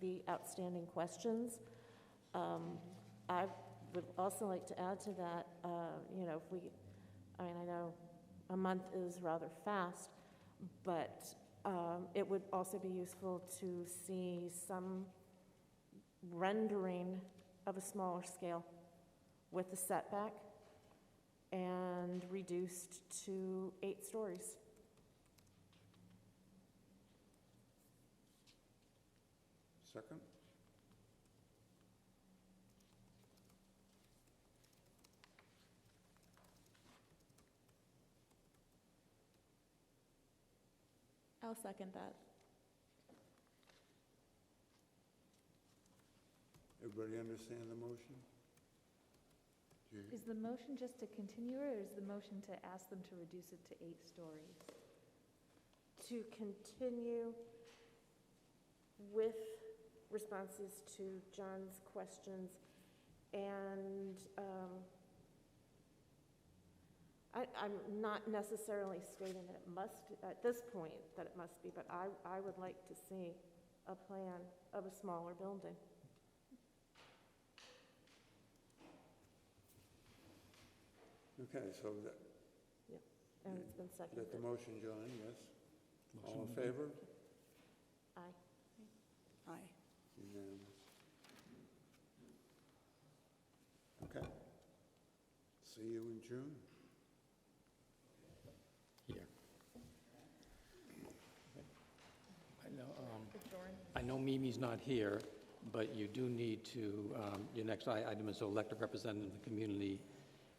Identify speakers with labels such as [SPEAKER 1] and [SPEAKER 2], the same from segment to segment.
[SPEAKER 1] the outstanding questions. Um, I would also like to add to that, uh, you know, if we, I mean, I know a month is rather fast, but um, it would also be useful to see some rendering of a smaller scale with the setback and reduced to eight stories.
[SPEAKER 2] Second?
[SPEAKER 3] I'll second that.
[SPEAKER 2] Everybody understand the motion? Do you-
[SPEAKER 4] Is the motion just to continue or is the motion to ask them to reduce it to eight stories?
[SPEAKER 1] To continue with responses to John's questions and, um, I, I'm not necessarily stating that it must, at this point, that it must be, but I, I would like to see a plan of a smaller building.
[SPEAKER 2] Okay, so that,
[SPEAKER 1] And it's been seconded.
[SPEAKER 2] that the motion, John, yes? All in favor?
[SPEAKER 1] Aye.
[SPEAKER 3] Aye.
[SPEAKER 2] Unanimous. Okay. See you in June.
[SPEAKER 5] Here. I know, um, I know Mimi's not here, but you do need to, um, your next i- item is to elect a representative of the Community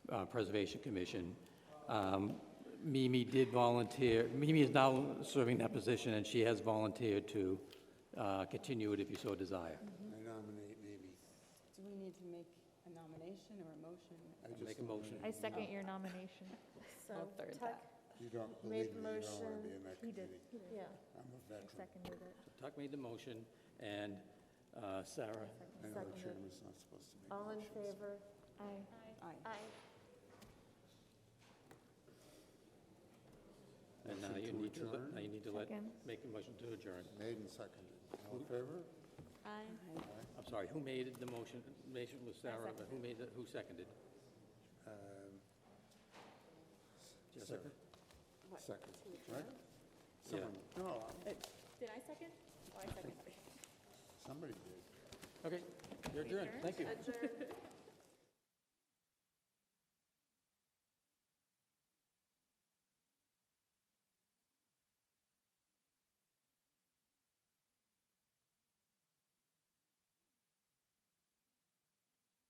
[SPEAKER 5] uh, Preservation Commission. Um, Mimi did volunteer, Mimi is now serving that position, and she has volunteered to uh, continue it if you so desire.
[SPEAKER 1] Mm-hmm.
[SPEAKER 2] I nominate Mimi.
[SPEAKER 3] Do we need to make a nomination or a motion?
[SPEAKER 2] I
[SPEAKER 5] I'll
[SPEAKER 2] just
[SPEAKER 5] Make a motion.
[SPEAKER 2] nominate-
[SPEAKER 4] I second your nomination.
[SPEAKER 1] So,
[SPEAKER 3] I'll third
[SPEAKER 1] Tuck,
[SPEAKER 3] that.
[SPEAKER 2] You don't
[SPEAKER 1] Made
[SPEAKER 2] believe me, you don't want
[SPEAKER 1] motion.
[SPEAKER 2] to be in that
[SPEAKER 4] He did,
[SPEAKER 2] committee.
[SPEAKER 4] he did.
[SPEAKER 1] Yeah,
[SPEAKER 2] I'm a
[SPEAKER 4] I
[SPEAKER 2] veteran.
[SPEAKER 4] seconded it.
[SPEAKER 5] Tuck made the motion, and uh, Sarah
[SPEAKER 2] I know the
[SPEAKER 1] Seconded.
[SPEAKER 2] chairman's not supposed to make
[SPEAKER 1] all in
[SPEAKER 2] motions.
[SPEAKER 1] favor?
[SPEAKER 4] Aye.
[SPEAKER 3] Aye.
[SPEAKER 1] Aye.
[SPEAKER 5] And now
[SPEAKER 2] Motion
[SPEAKER 5] you
[SPEAKER 2] to
[SPEAKER 5] need to, let-
[SPEAKER 2] adjourn.
[SPEAKER 5] now you need to let,
[SPEAKER 4] Second.
[SPEAKER 5] make a motion to adjourn.
[SPEAKER 2] Made and seconded. All in favor?
[SPEAKER 1] Aye.
[SPEAKER 5] I'm sorry, who made the motion? Motion was Sarah, but who made it, who seconded?
[SPEAKER 2] Um,
[SPEAKER 5] Yes,
[SPEAKER 2] Second?
[SPEAKER 1] What,
[SPEAKER 2] Second,
[SPEAKER 1] to adjourn?
[SPEAKER 2] right? Someone, no,
[SPEAKER 3] Did I second? Oh, I seconded.
[SPEAKER 2] somebody did.
[SPEAKER 5] Okay, you're adjourned, thank you.
[SPEAKER 1] Adjourn.